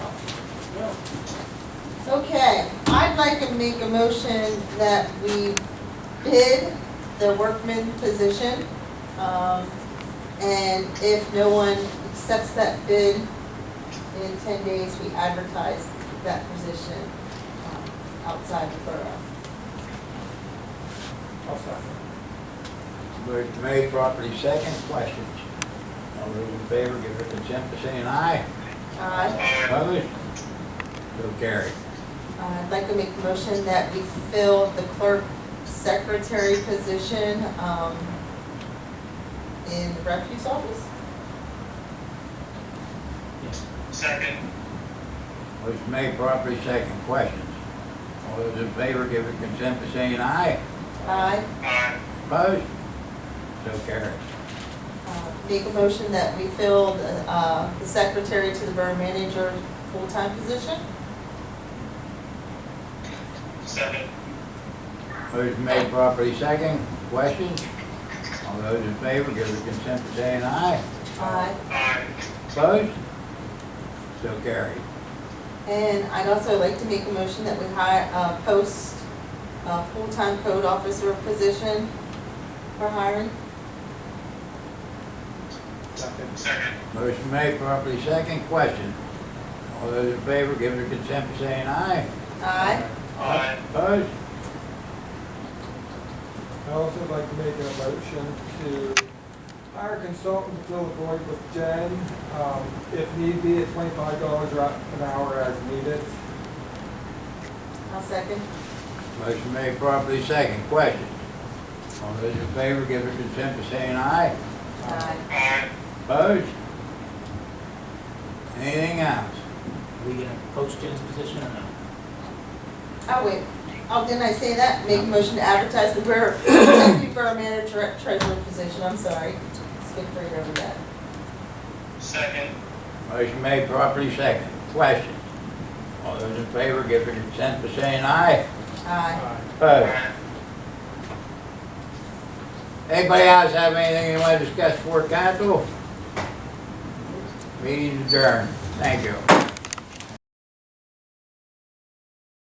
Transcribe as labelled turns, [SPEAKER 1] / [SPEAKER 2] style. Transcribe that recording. [SPEAKER 1] Okay, I'd like to make a motion that we bid the workman position. Um, And if no one accepts that bid, in ten days, we advertise that position um, outside the borough.
[SPEAKER 2] Motion made, properly second, questions? All those in favor, give their consent by saying aye.
[SPEAKER 1] Aye.
[SPEAKER 2] Opposed? So carried.
[SPEAKER 1] Uh, I'd like to make a motion that we fill the clerk secretary position um, in the refuse office.
[SPEAKER 3] Second.
[SPEAKER 2] Motion made, properly second, questions? All those in favor, give their consent by saying aye.
[SPEAKER 1] Aye.
[SPEAKER 3] Aye.
[SPEAKER 2] Opposed? So carried.
[SPEAKER 1] Uh, Make a motion that we fill the uh, the secretary to the borough manager full-time position.
[SPEAKER 3] Second.
[SPEAKER 2] Motion made, properly second, questions? All those in favor, give their consent by saying aye.
[SPEAKER 1] Aye.
[SPEAKER 3] Aye.
[SPEAKER 2] Opposed? So carried.
[SPEAKER 1] And I'd also like to make a motion that we hire, uh, post a full-time code officer position for hiring.
[SPEAKER 3] Second.
[SPEAKER 2] Motion made, properly second, question. All those in favor, give their consent by saying aye.
[SPEAKER 1] Aye.
[SPEAKER 3] Aye.
[SPEAKER 2] Opposed?
[SPEAKER 4] I also would like to make a motion to hire a consultant to fill the void with Jen. Um, if need be, at twenty-five dollars an hour as needed.
[SPEAKER 1] I'll second.
[SPEAKER 2] Motion made, properly second, question. All those in favor, give their consent by saying aye.
[SPEAKER 1] Aye.
[SPEAKER 3] Aye.
[SPEAKER 2] Opposed? Anything else?
[SPEAKER 5] Are we gonna post Jen's position or no?
[SPEAKER 1] Oh, wait. Oh, didn't I say that? Make a motion to advertise the borough, deputy borough manager treasurer position. I'm sorry. Skip right over that.
[SPEAKER 3] Second.
[SPEAKER 2] Motion made, properly second, question. All those in favor, give their consent by saying aye.
[SPEAKER 1] Aye.
[SPEAKER 2] Opposed? Anybody else have anything they want to discuss for council? Meeting adjourned. Thank you.